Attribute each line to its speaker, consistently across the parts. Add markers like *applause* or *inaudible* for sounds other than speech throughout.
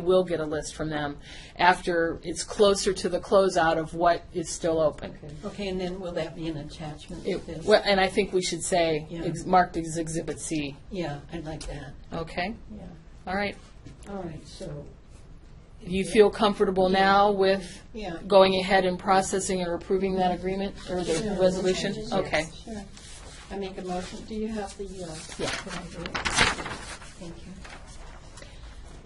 Speaker 1: We'll get a list from them after it's closer to the closeout of what is still open.
Speaker 2: Okay, and then will that be an attachment to
Speaker 1: It-
Speaker 2: this?
Speaker 1: well, And I think we should say,
Speaker 2: Yeah.
Speaker 1: ex- marked as Exhibit C,
Speaker 2: Yeah, I'd like that,
Speaker 1: okay?
Speaker 2: yeah.
Speaker 1: All right.
Speaker 2: All right, so,
Speaker 1: You feel comfortable now with
Speaker 2: yeah.
Speaker 1: going ahead and processing or approving that agreement or the
Speaker 2: Sure.
Speaker 1: resolution?
Speaker 2: Yes,
Speaker 1: Okay.
Speaker 2: Sure. I make a motion, do you have the, uh?
Speaker 1: Yeah.
Speaker 2: can I do it? Thank you.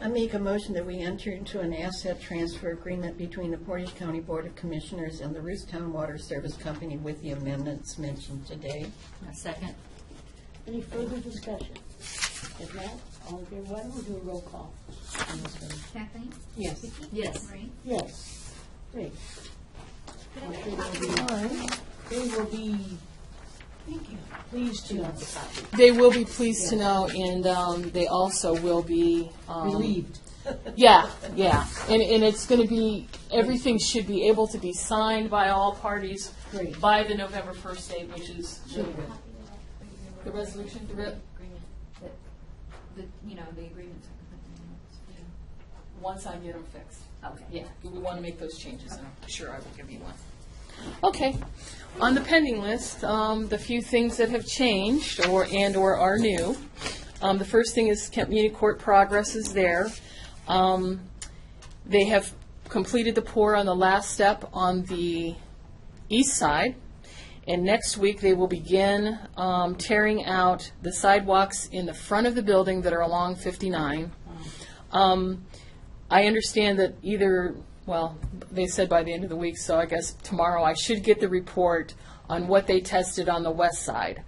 Speaker 2: I make a motion that we enter into an asset transfer agreement between the Portage County Board of Commissioners and the Roostown Water Service Company with the amendments mentioned today.
Speaker 3: Second.
Speaker 4: Any further discussion? If not, all in favor, why don't we do a roll call? on this one?
Speaker 5: Kathleen?
Speaker 2: Yes.
Speaker 5: Vicki?
Speaker 3: Yes.
Speaker 5: Maureen?
Speaker 4: Yes. Great. They will be pleased to know the copy.
Speaker 1: They will be pleased to know, and um, they also will be. um,
Speaker 4: Relieved.
Speaker 1: Yeah, yeah. And, and it's going to be, everything should be able to be signed by all parties
Speaker 4: Great.
Speaker 1: by the November 1st date, which is the resolution, the re-
Speaker 5: Agreement, that, the, you know, the agreements. are-
Speaker 1: once I get them fixed.
Speaker 5: Okay.
Speaker 1: Yeah, we want to make those changes, and I'm sure I will give you one. Okay. On the pending list, um, the few things that have changed or, and/or are new. Um, The first thing is Kent Muni Court progress is there. Um, They have completed the pour on the last step on the east side. And next week, they will begin um, tearing out the sidewalks in the front of the building that are along 59. Um, I understand that either, well, they said by the end of the week, so I guess tomorrow I should get the report on what they tested on the west side,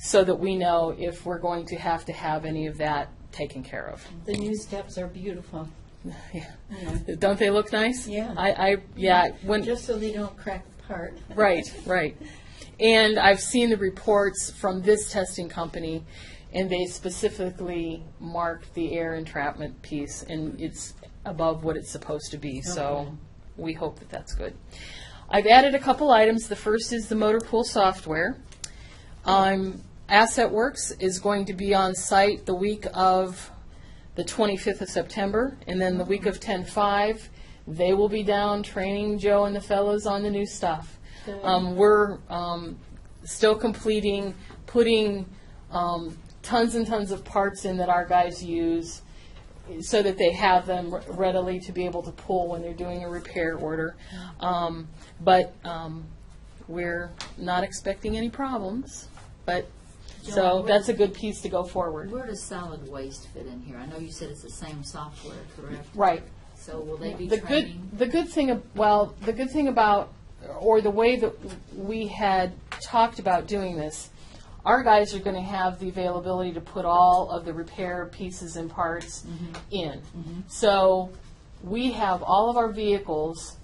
Speaker 1: so that we know if we're going to have to have any of that taken care of. *laughs*
Speaker 2: The new steps are beautiful,
Speaker 1: Don't they look nice?
Speaker 2: Mm-hmm. Yeah.
Speaker 1: I, I, yeah, when.
Speaker 2: just so they don't crack apart. *laughs*
Speaker 1: Right, right. And I've seen the reports from this testing company, and they specifically marked the air entrapment piece, and it's above what it's supposed to be, so we hope that that's good. I've added a couple items. The first is the motor pool software. Um, Asset Works is going to be on site the week of the 25th of September, and then the week of 10/5, they will be down training Joe and the fellows on the new stuff. Um, We're um, still completing, putting um, tons and tons of parts in that our guys use, so that they have them readily to be able to pull when they're doing a repair order. Um, But um, we're not expecting any problems, but, so
Speaker 3: Joan,
Speaker 1: that's a good piece to go forward.
Speaker 3: Where does solid waste fit in here? I know you said it's the same software, correct?
Speaker 1: Right.
Speaker 3: So will they be
Speaker 1: The good,
Speaker 3: training?
Speaker 1: the good thing, ab- well, the good thing about, or the way that we had talked about doing this, our guys are gonna have the availability to put all of the repair pieces and parts
Speaker 3: Mm-hmm.
Speaker 1: in. So, we have all of our vehicles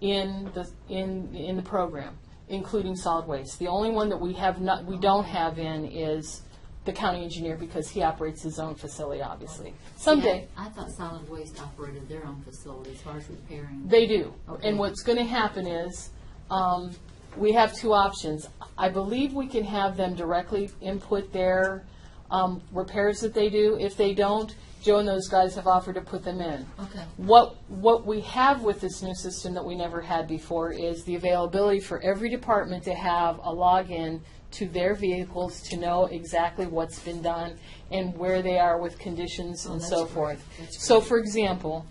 Speaker 1: in the, in, in the program, including solid waste. The only one that we have not, we don't have in is the county engineer, because he operates his own facility, obviously. Someday,
Speaker 3: Yeah, I thought solid waste operated their own facility as far as repairing.
Speaker 1: They do.
Speaker 3: Okay.
Speaker 1: And what's going to happen is, um, we have two options. I believe we can have them directly input their um, repairs that they do. If they don't, Joe and those guys have offered to put them in.
Speaker 3: Okay.
Speaker 1: What, what we have with this new system that we never had before is the availability for every department to have a login to their vehicles to know exactly what's been done and where they are with conditions and
Speaker 3: Oh, that's
Speaker 1: so
Speaker 3: great.
Speaker 1: forth.
Speaker 3: That's
Speaker 1: So, for example,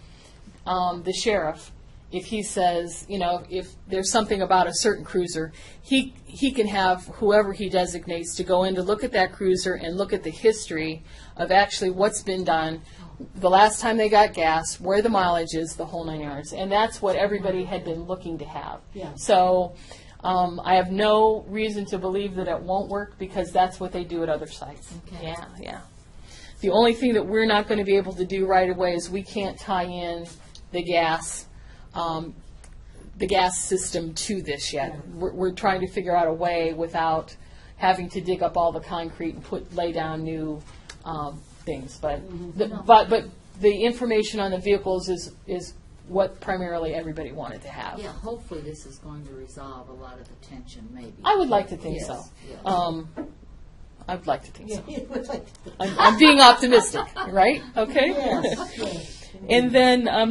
Speaker 1: um, the sheriff, if he says, you know, if there's something about a certain cruiser, he, he can have whoever he designates to go in to look at that cruiser and look at the history of actually what's been done, the last time they got gas, where the mileage is, the whole nine yards. And that's what everybody had been looking to have.
Speaker 2: Yeah.
Speaker 1: So, um, I have no reason to believe that it won't work because that's what they do at other sites.
Speaker 3: Okay.
Speaker 1: Yeah, yeah. The only thing that we're not going to be able to do right away is we can't tie in the gas, um, the gas system to this yet. We're, we're trying to figure out a way without having to dig up all the concrete and put, lay down new, um, things, but,
Speaker 3: Mm-hmm.
Speaker 1: the- but, but the information on the vehicles is, is what primarily everybody wanted to have.
Speaker 3: Yeah, hopefully this is going to resolve a lot of the tension, maybe.
Speaker 1: I would like to think so.
Speaker 3: Yes, yes.
Speaker 1: Um, I would like to think so.
Speaker 2: It was like-
Speaker 1: I'm, I'm being optimistic, right? Okay?
Speaker 2: Yes, yes,
Speaker 1: And then, um,